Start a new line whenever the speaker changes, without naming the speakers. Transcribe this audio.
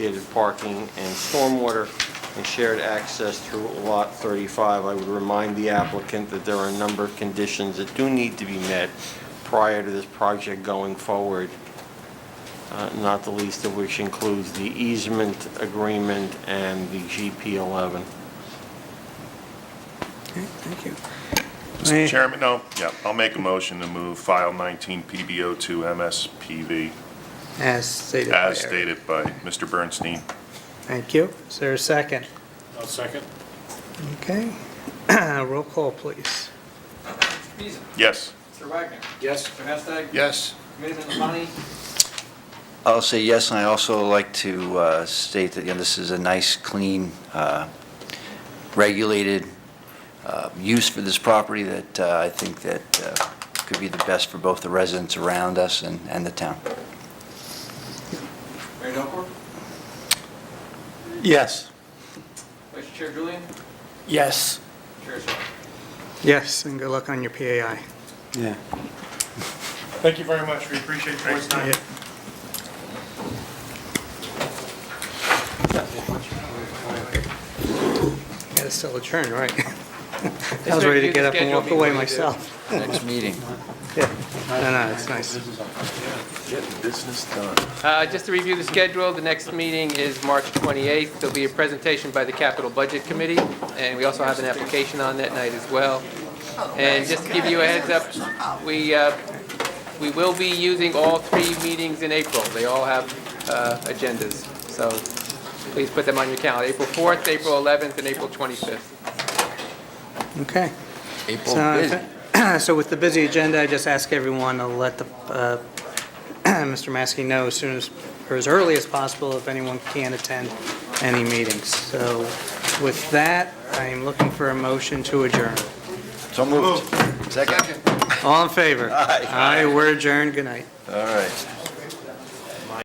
dedicated parking and stormwater and shared access through Lot 35. I would remind the applicant that there are a number of conditions that do need to be met prior to this project going forward, uh, not the least of which includes the easement agreement and the GP11.
Okay, Thank you.
Mr.
May-
Chairman, no, yeah, I'll make a motion to move file 19 PBO to MSPV
As stated. by
as
Eric.
stated by Mr. Bernstein.
Thank you. Is there a second?
I'll second.
Okay. Roll call, please.
Mr. Beazon.
Yes.
Mr. Wagner.
Yes.
Mr. Hashtag.
Yes.
Committeeman Lavani.
I'll say yes, and I also like to uh, state that, you know, this is a nice, clean, uh, regulated uh, use for this property that uh, I think that uh, could be the best for both the residents around us and and the town.
Mayor Delcor.
Yes.
Vice Chair Julian.
Yes.
Chair Swalwell.
Yes, and good luck on your PAI.
Yeah.
Thank you very much. We appreciate your time.
Got to still adjourn, right? I was ready to get up and walk away myself.
Next meeting.
No, no, it's nice.
Getting business done.
Uh, Just to review the schedule, the next meeting is March 28th. There'll be a presentation by the Capital Budget Committee, and we also have an application on that night as well. And just to give you a heads up, we, uh, we will be using all three meetings in April. They all have uh, agendas, so please put them on your calendar, April 4th, April 11th, and April 25th.
Okay.
April
So I- so with the Oh, busy agenda, I just ask everyone to let the, uh, Mr. Maskey know as soon as, or as early as possible if anyone can attend any meetings. So with that, I am looking for a motion to adjourn.
So moved. Second?
All in favor?
Aye.
Aye, we're adjourned. Good night.
All right.